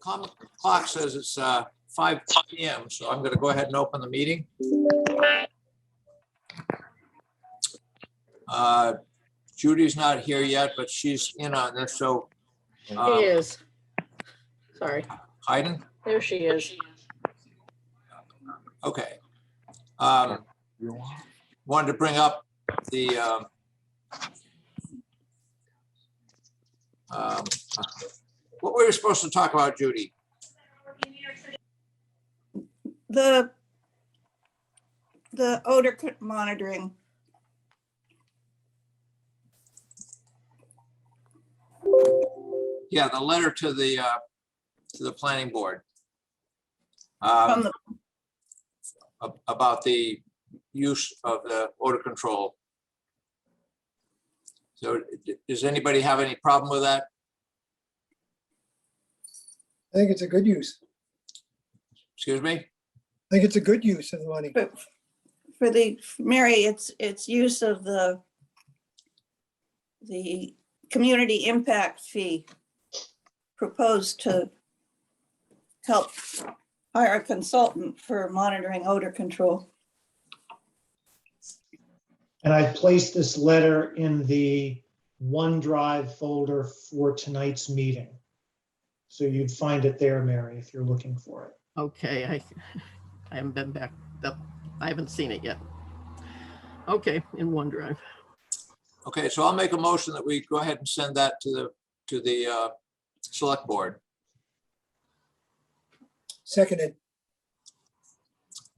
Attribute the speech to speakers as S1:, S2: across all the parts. S1: common clock says it's uh, 5 PM, so I'm going to go ahead and open the meeting. Uh, Judy's not here yet, but she's in on this, so uh,
S2: Um,
S3: She is. Sorry,
S1: Hayden,
S3: there she is.
S1: okay. Um, Wanted to bring up the um, um, what we were supposed to talk about, Judy.
S4: The, the odor c- monitoring.
S1: Yeah, the letter to the, uh, to the planning board.
S4: from
S1: Um,
S4: the
S1: ab- about the use of the odor control. So d- does anybody have any problem with that?
S5: I think it's a good use.
S1: Excuse me?
S5: I think it's a good use of the money.
S4: For the, Mary, it's, it's use of the, the community impact fee proposed to help hire a consultant for monitoring odor control.
S6: And I placed this letter in the OneDrive folder for tonight's meeting. So you'd find it there, Mary, if you're looking for it.
S2: Okay, I, I haven't been back up. I haven't seen it yet. Okay, in OneDrive.
S1: Okay, so I'll make a motion that we go ahead and send that to the, to the, uh, select board.
S5: Seconded,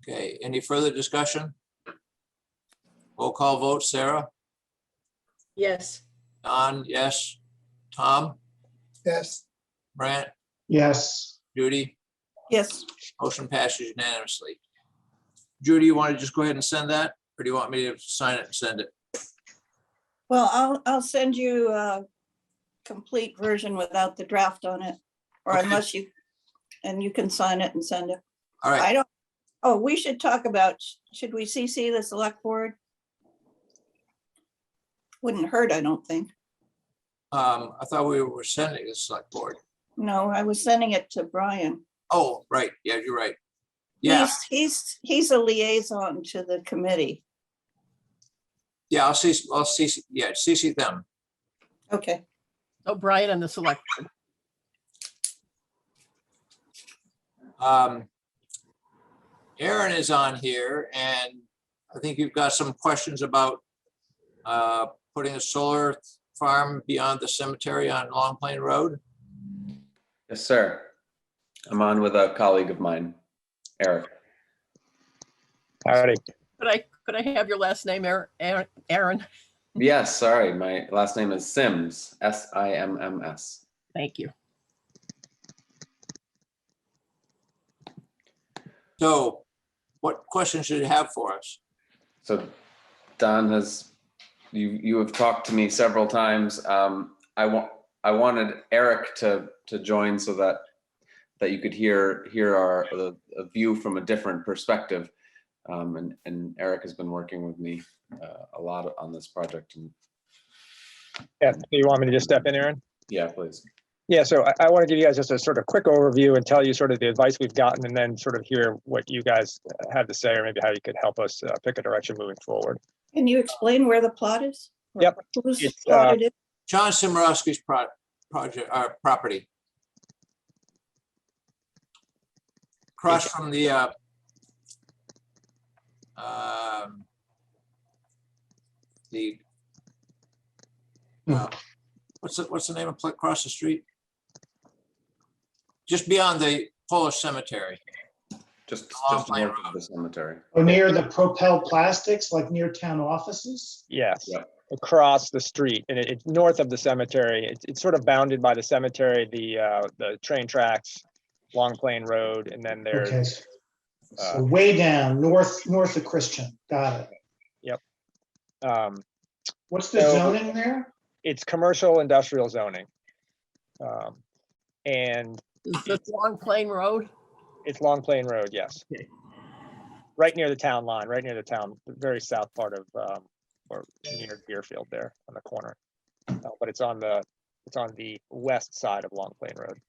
S1: Okay, any further discussion? Roll call vote, Sarah?
S3: Yes,
S1: Don, yes. Tom?
S5: yes,
S1: Brant?
S6: Yes,
S1: Judy?
S4: Yes,
S1: Motion passes unanimously. Judy, you want to just go ahead and send that, or do you want me to sign it and send it?
S4: well, I'll, I'll send you a complete version without the draft on it, or
S1: Okay.
S4: unless you, and you can sign it and send it.
S1: All right,
S4: I don't, oh, we should talk about, should we CC the select board? Wouldn't hurt, I don't think.
S1: um, I thought we were sending it to the select board.
S4: No, I was sending it to Brian.
S1: Oh, right, yeah, you're right. Yeah,
S4: He's- He's, he's a liaison to the committee.
S1: yeah, I'll see, I'll see, yeah, CC them.
S4: Okay,
S2: Oh, Brian and the select. board.
S1: Um, Aaron is on here, and I think you've got some questions about uh, putting a solar farm beyond the cemetery on Long Plain Road.
S7: Yes, sir. I'm on with a colleague of mine, Eric.
S8: Howdy.
S2: Could I, could I have your last name, Aaron- Aaron? Aaron?
S7: Yes, sorry, my last name is Sims, S I M M S.
S2: Thank you.
S1: So what questions should you have for us?
S7: So Don has, you, you have talked to me several times. Um, I want, I wanted Eric to, to join so that, that you could hear, hear our, the- a view from a different perspective. Um, and, and Eric has been working with me uh, a lot on this project and,
S8: Yeah, so you want me to just step in, Aaron?
S7: yeah, please.
S8: Yeah, so I, I want to give you guys just a sort of quick overview and tell you sort of the advice we've gotten and then sort of hear what you guys uh, have to say or maybe how you could help us uh, pick a direction moving forward.
S4: can you explain where the plot is? Or
S8: Yep.
S4: Whose
S8: It's, uh,
S4: plot it is?
S1: John Simorowski's pro- project, uh, property. Across from the, uh, um, the, uh, what's the, what's the name of, pla- across the street? Just beyond the Polish cemetery.
S7: Just,
S1: Long
S7: just
S1: Plain
S7: north
S1: Road.
S7: of the cemetery.
S6: or near Oh, the Propel Plastics, like near town offices.
S8: Yes,
S7: Yep.
S8: across the street and it- it's north of the cemetery. It's, it's sort of bounded by the cemetery, the, uh, the train tracks, Long Plain Road, and then
S6: Okay.
S8: there's,
S6: So way down, north, north of Christian. Got it.
S8: um,
S6: What's the
S8: So-
S6: zoning there?
S8: it's commercial industrial zoning. Um, And
S2: Is this Long Plain Road?
S8: It's Long Plain Road, yes.
S2: Okay.
S8: Right near the town line, right near the town, the very south part of, um, or near Deerfield there on the corner. Uh, But it's on the, it's on the west side of Long Plain Road.